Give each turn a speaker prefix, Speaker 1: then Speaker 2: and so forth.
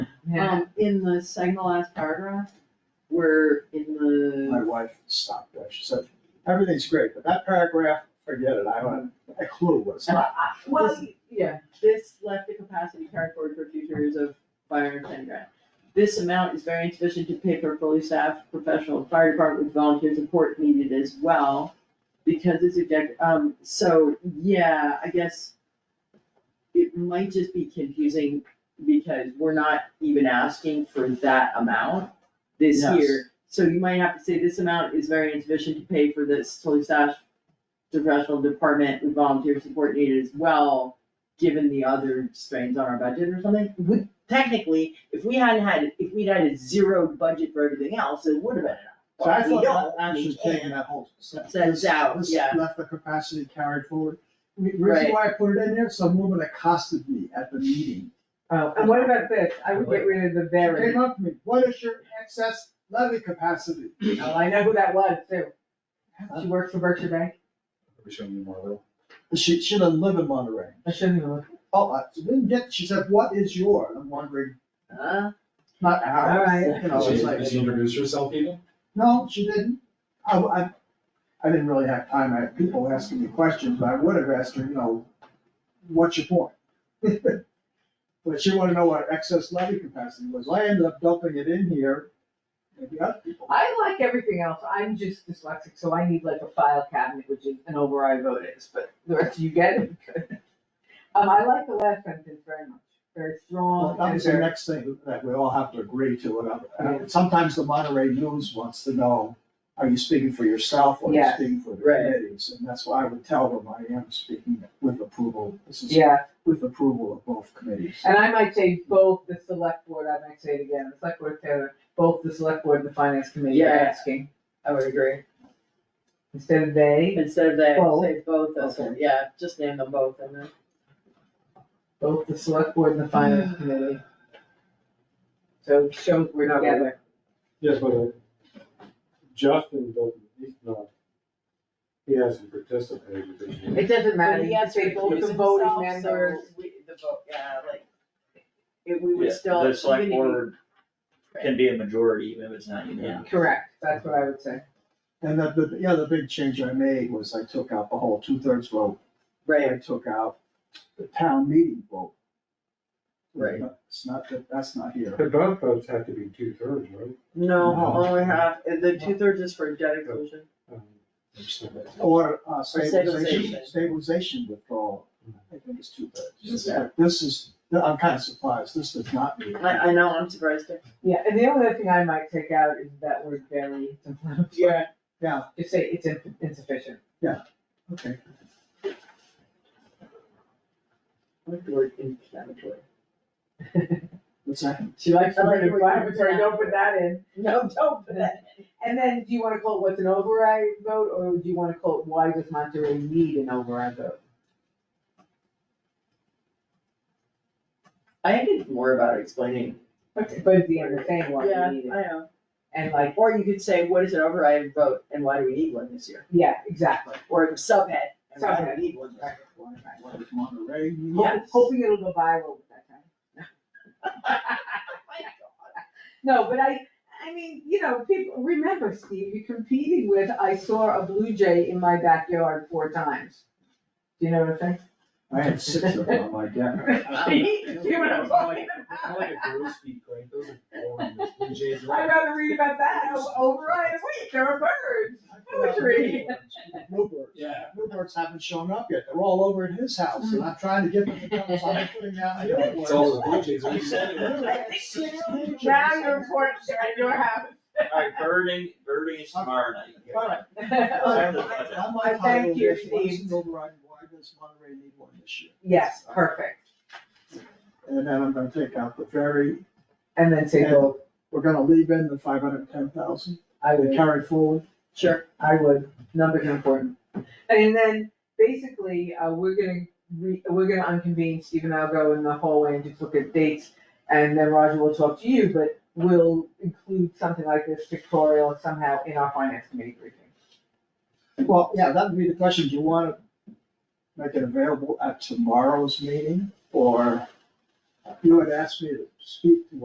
Speaker 1: Um, in the second to last paragraph, where in
Speaker 2: My
Speaker 1: the,
Speaker 2: wife stopped there, she said, everything's great, but that paragraph, forget it, I don't have a clue what it's about.
Speaker 1: well, yeah, this left the capacity carried forward for future years of fire and ten grand. This amount is very insufficient to pay for fully staffed professional fire department with volunteer support needed as well. Because it's a, dec- um, so, yeah, I guess it might just be confusing because we're not even asking for that amount this
Speaker 2: Yes.
Speaker 1: year. So you might have to say this amount is very insufficient to pay for this fully staffed professional department with volunteer support needed as well, given the other strains on our budget or something. Would, technically, if we hadn't had, if we'd had a zeroed budget for everything else, it would have been
Speaker 2: So I
Speaker 1: enough. We
Speaker 2: thought
Speaker 1: don't,
Speaker 2: that
Speaker 1: we
Speaker 2: actually
Speaker 1: can't.
Speaker 2: taking that whole.
Speaker 1: Sends out,
Speaker 2: this
Speaker 1: yeah.
Speaker 2: Left the capacity carried forward. The Reason why I put it in there, some woman accosted me at the meeting.
Speaker 3: Oh, and what about this? I would get rid of the
Speaker 2: She
Speaker 3: very.
Speaker 2: Came up to me, what is your excess levy capacity?
Speaker 3: Oh, I know who that was too. She worked for Berkshire Bank.
Speaker 4: Are we showing you more of
Speaker 2: She, she doesn't live in Monterey.
Speaker 3: I shouldn't have looked.
Speaker 2: Oh, I didn't get, she said, what is your, and I'm wondering,
Speaker 1: Uh,
Speaker 2: not ours,
Speaker 3: Alright.
Speaker 2: you know,
Speaker 4: that? Did
Speaker 2: it's
Speaker 4: she-
Speaker 2: like.
Speaker 4: did she introduce herself even?
Speaker 2: No, she didn't. I, I, I didn't really have time. I had people asking me questions, but I would have asked her, you know, what's your point? But she wanted to know what excess levy capacity was. I ended up dumping it in here. Maybe other people.
Speaker 3: I like everything else. I'm just dyslexic, so I need like a file cabinet, which is an override vote is, but the rest you get it. good. Um, I like the last sentence very much. Very strong
Speaker 2: That
Speaker 3: and
Speaker 2: was the
Speaker 3: very.
Speaker 2: next thing that we all have to agree to. And sometimes the Monterey News wants to know, are you speaking for yourself or are you
Speaker 3: Yes.
Speaker 2: speaking for the
Speaker 1: Right.
Speaker 2: committees? And that's why I would tell them I am speaking with approval. This is
Speaker 3: Yeah,
Speaker 2: with approval of both committees.
Speaker 3: and I might say both the select board, I might say it again, the select board, Taylor, both the select board and the finance committee are
Speaker 1: Yeah.
Speaker 3: asking.
Speaker 1: I would agree.
Speaker 3: Instead of they,
Speaker 1: Instead of that,
Speaker 3: Both.
Speaker 1: say both of them, yeah, just name them both and then.
Speaker 3: both the select board and the finance committee. So it shows we're together.
Speaker 5: Yes, but uh, Justin doesn't, he's not, he hasn't participated. this year.
Speaker 3: It doesn't matter,
Speaker 1: But
Speaker 3: you can say both the voting members.
Speaker 1: The vote, yeah, like, if we would
Speaker 6: Yeah,
Speaker 1: still.
Speaker 6: The select
Speaker 1: even if we-
Speaker 6: board can be a majority even if it's not unanimous.
Speaker 3: Correct, that's what I would say.
Speaker 2: And the, the, yeah, the big change I made was I took out the whole two-thirds vote.
Speaker 1: Right,
Speaker 2: I took out the town meeting vote.
Speaker 1: Right.
Speaker 2: It's not, that that's not here.
Speaker 5: But both votes have to be two thirds, right?
Speaker 1: no,
Speaker 2: No.
Speaker 1: only half, and the two thirds is for debt exclusion.
Speaker 5: Um,
Speaker 2: Or uh,
Speaker 1: stabilization.
Speaker 2: stabilization, stabilization withdrawal, I think it's two-thirds.
Speaker 1: Yeah.
Speaker 2: But This is, I'm kind of surprised, this does not mean.
Speaker 1: I, I know, I'm surprised. too.
Speaker 3: Yeah, and the only other thing I might take out is that word very, it's inflammatory.
Speaker 1: Yeah.
Speaker 2: Yeah,
Speaker 3: just say it's in- insufficient.
Speaker 2: okay.
Speaker 1: I like the word inflammatory.
Speaker 2: What's that?
Speaker 3: She likes
Speaker 1: I like the word
Speaker 3: inflammatory, don't put that in.
Speaker 1: No, don't put that.
Speaker 3: And then, do you wanna call it what's an override vote, or do you wanna call it why does Monterey need an override vote?
Speaker 1: I think it's more about explaining.
Speaker 3: Okay, But it's the understanding why
Speaker 1: Yeah, I
Speaker 3: we need it,
Speaker 1: know.
Speaker 3: and like,
Speaker 1: Or you could say, what is an override vote and why do we need one this year?
Speaker 3: yeah, exactly.
Speaker 1: Or a subhead, and why do we need one this year?
Speaker 3: Right.
Speaker 2: What is Monterey?
Speaker 3: Hoping- Hoping it'll go viral with that time. No, but I, I mean, you know, people, remember, Steve, you're competing with, I saw a blue jay in my backyard four times. Do you know what I'm saying?
Speaker 2: I had six of them on my deck.
Speaker 3: See? Do you know what I'm talking
Speaker 4: I
Speaker 3: about?
Speaker 4: like a gross beak, like those are boring, those blue jays are-
Speaker 3: I'd rather read about that over- override, wait, there are birds, poetry.
Speaker 2: Bluebirds.
Speaker 4: Yeah.
Speaker 2: Bluebirds haven't shown up yet, they're all over at his house, and I'm trying to get them to come, so I'm putting down
Speaker 4: I
Speaker 2: the
Speaker 4: know,
Speaker 2: billboard.
Speaker 4: it's all the blue jays, are excited.
Speaker 2: Literally had six blue jays.
Speaker 3: Now you're important, I know how.
Speaker 6: Alright, birding, birding is tomorrow night.
Speaker 2: All right,
Speaker 6: Sorry, the budget.
Speaker 2: I'm
Speaker 3: I
Speaker 2: on
Speaker 3: thank
Speaker 2: title of
Speaker 3: you,
Speaker 2: this, what is
Speaker 3: Steve.
Speaker 2: an override, why does Monterey need one this year?
Speaker 3: Yes, perfect,
Speaker 2: And then I'm gonna take out the ferry,
Speaker 3: and then say, well,
Speaker 2: we're gonna leave in the five hundred and ten thousand,
Speaker 3: I would.
Speaker 2: and carry forward.
Speaker 1: Sure.
Speaker 3: I would, numbers are important. And then, basically, uh, we're gonna re, we're gonna unconvene, Steve and I'll go in the hallway and just look at dates, and then Roger will talk to you, but we'll include something like this pictorial somehow in our finance committee briefing.
Speaker 2: Well, yeah, that would be the question, do you wanna make it available at tomorrow's meeting, or you had asked me to speak to